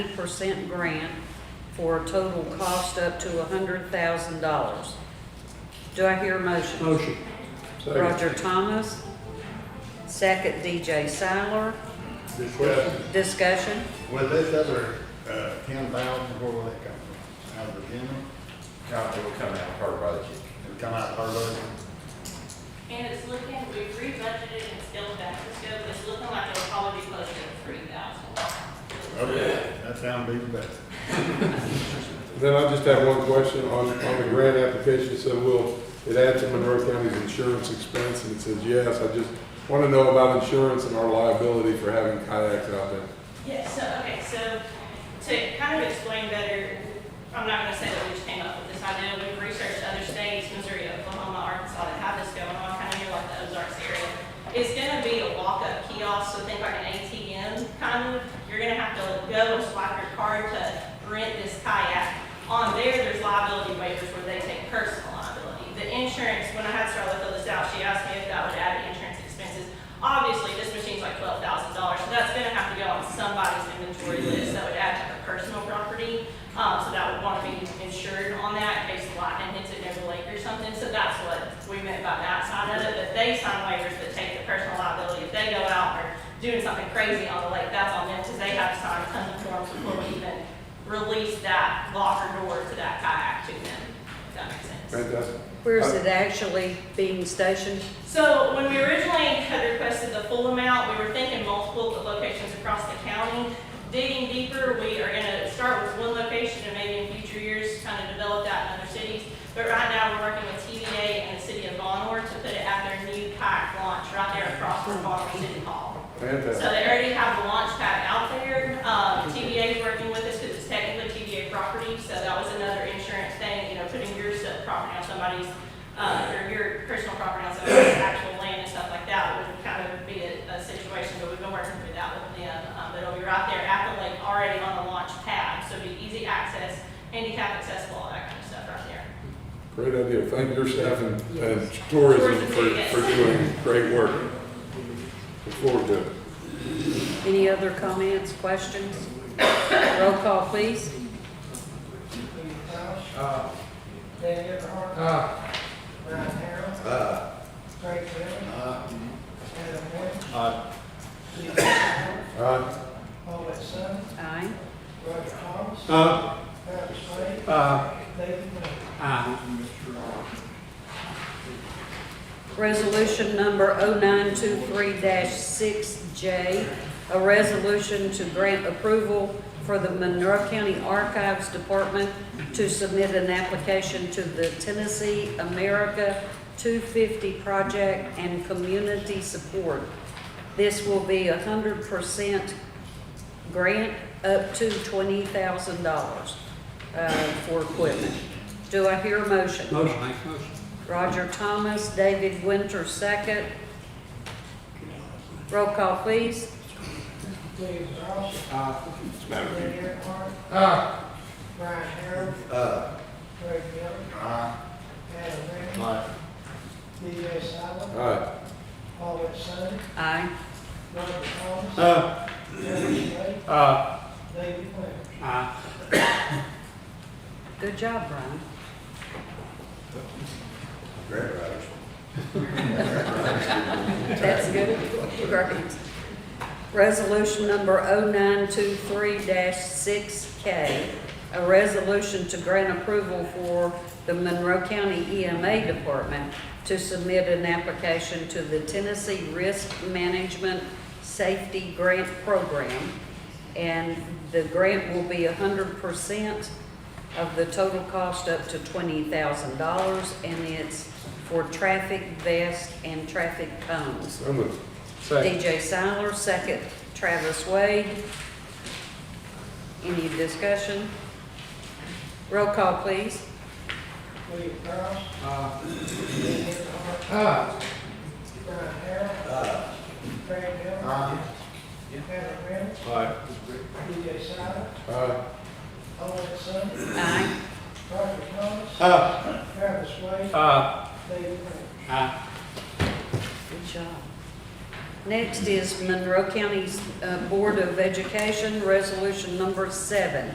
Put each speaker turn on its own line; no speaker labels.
percent grant for a total cost up to hundred thousand dollars. Do I hear a motion?
Motion.
Roger Thomas, second DJ Siler.
Discussion,
Discussion?
will this other, uh, ten thousand, where will that come from? Out of Virginia?
Council will come out of her budget.
It'll come out of our budget?
And it's looking, we've re-budgeted and scaled back the scope, it's looking like it'll probably be closer to three thousand.
Okay, that sounds even better.
Then I just have one question on, on the grant application, so will it add to Monroe County's insurance expense? And it says yes, I just want to know about insurance and our liability for having kayaks out there.
Yeah, so, okay, so to kind of explain better, I'm not gonna say that we just came up with this idea, we've researched other states, Missouri, Oklahoma, Arkansas, that have this going on, kind of near like the Ozarks area. It's gonna be a walk-up kiosk, so think like an ATM, kind of, you're gonna have to go and swipe your card to rent this kayak. On there, there's liability waivers where they take personal liability. The insurance, when I had Starla fill this out, she asked me if that would add insurance expenses. Obviously, this machine's like twelve thousand dollars, so that's gonna have to go on somebody's inventory list, that would add to her personal property. Um, so that would wanna be insured on that in case the lightning hits it near the lake or something, so that's what we meant by that side of it. But they sign waivers that take the personal liability, if they go out or doing something crazy on the lake, that's on them, because they have to sign tons of forms before we even release that locker door to that kayak to them, if that makes sense.
Fantastic.
Where is it actually being stationed?
So when we originally had requested the full amount, we were thinking multiple locations across the county. Digging deeper, we are gonna start with one location and maybe in future years, kind of develop that in other cities. But right now, we're working with TVA and the city of Baltimore to put it at their new kayak launch right there across from Baltimore City Hall. So
Fantastic.
they already have the launch pad out there. Um, TVA is working with us because it's technically TVA property, so that was another insurance thing, you know, putting your stuff, property on somebody's, uh, or your personal property on somebody's actual land and stuff like that would kind of be a, a situation, but we've been working through that with them. Um, but it'll be right there at the lake, already on the launch pad, so it'll be easy access, handicap accessible, all that kind of stuff right there.
Great idea. Thank your staff and, and tourism for, for doing great work. Look forward to it.
Any other comments, questions? Roll call, please.
Uh,
Dan Earnhardt,
uh,
Brian Harrell,
Uh,
Craig Miller,
Uh,
Adam Wentz,
uh,
Steve Fowler,
Uh,
Paul Watson,
Aye.
Roger Thomas,
uh,
Travis Wade,
uh,
David Moore.
uh.
Resolution number 0923-6J, a resolution to grant approval for the Monroe County Archives Department to submit an application to the Tennessee America 250 Project and Community Support. This will be 100% grant up to $20,000 uh, for equipment. Do I hear a motion?
Motion, make motion.
Roger Thomas, David Winter, second. Roll call, please.
Steve Ross,
Uh,
Dan Earnhardt,
uh,
Brian Harrell,
uh,
Craig Miller,
uh,
Adam Wentz,
uh,
DJ Silent,
aye.
Paul Watson,
Aye.
Roger Thomas,
uh,
Travis Wade,
uh,
David Moore.
uh.
Good job, Brian.
grant writers.
That's good. Great. Resolution number 0923-6K, a resolution to grant approval for the Monroe County EMA Department to submit an application to the Tennessee Risk Management Safety Grant Program. And the grant will be 100% of the total cost up to $20,000, and it's for traffic vests and traffic cones.
So moved.
DJ Siler, second Travis Wade. Any discussion? Roll call, please.
Steve Ross,
Uh,
Dan Earnhardt,
uh,
Uh,
Brian Harrell, Craig Miller,
uh,
Adam Wentz,
Aye.
DJ Silent,
Aye.
Paul Watson,
Aye.
Roger Thomas,
uh,
Travis Wade,
uh,
David Moore.
uh.
Good job. Next is Monroe County's uh, Board of Education, resolution number seven.